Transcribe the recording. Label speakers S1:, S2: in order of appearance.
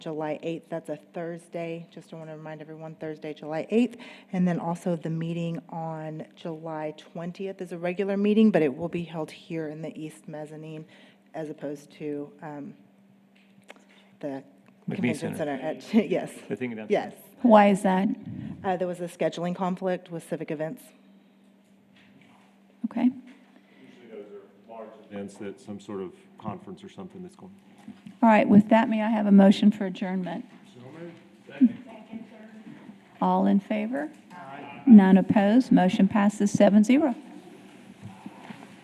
S1: July 8th. That's a Thursday. Just want to remind everyone, Thursday, July 8th. And then also the meeting on July 20th is a regular meeting, but it will be held here in the East Mezzanine as opposed to um, the
S2: McBee
S1: Convention Center.
S2: Center.
S1: at- Yes,
S2: The thing down.
S1: yes.
S3: Why is that?
S1: Uh, There was a scheduling conflict with civic events.
S3: Okay.
S2: Events that some sort of conference or something that's going.
S3: All right, with that, may I have a motion for adjournment? All in favor? None opposed, motion passes seven zero.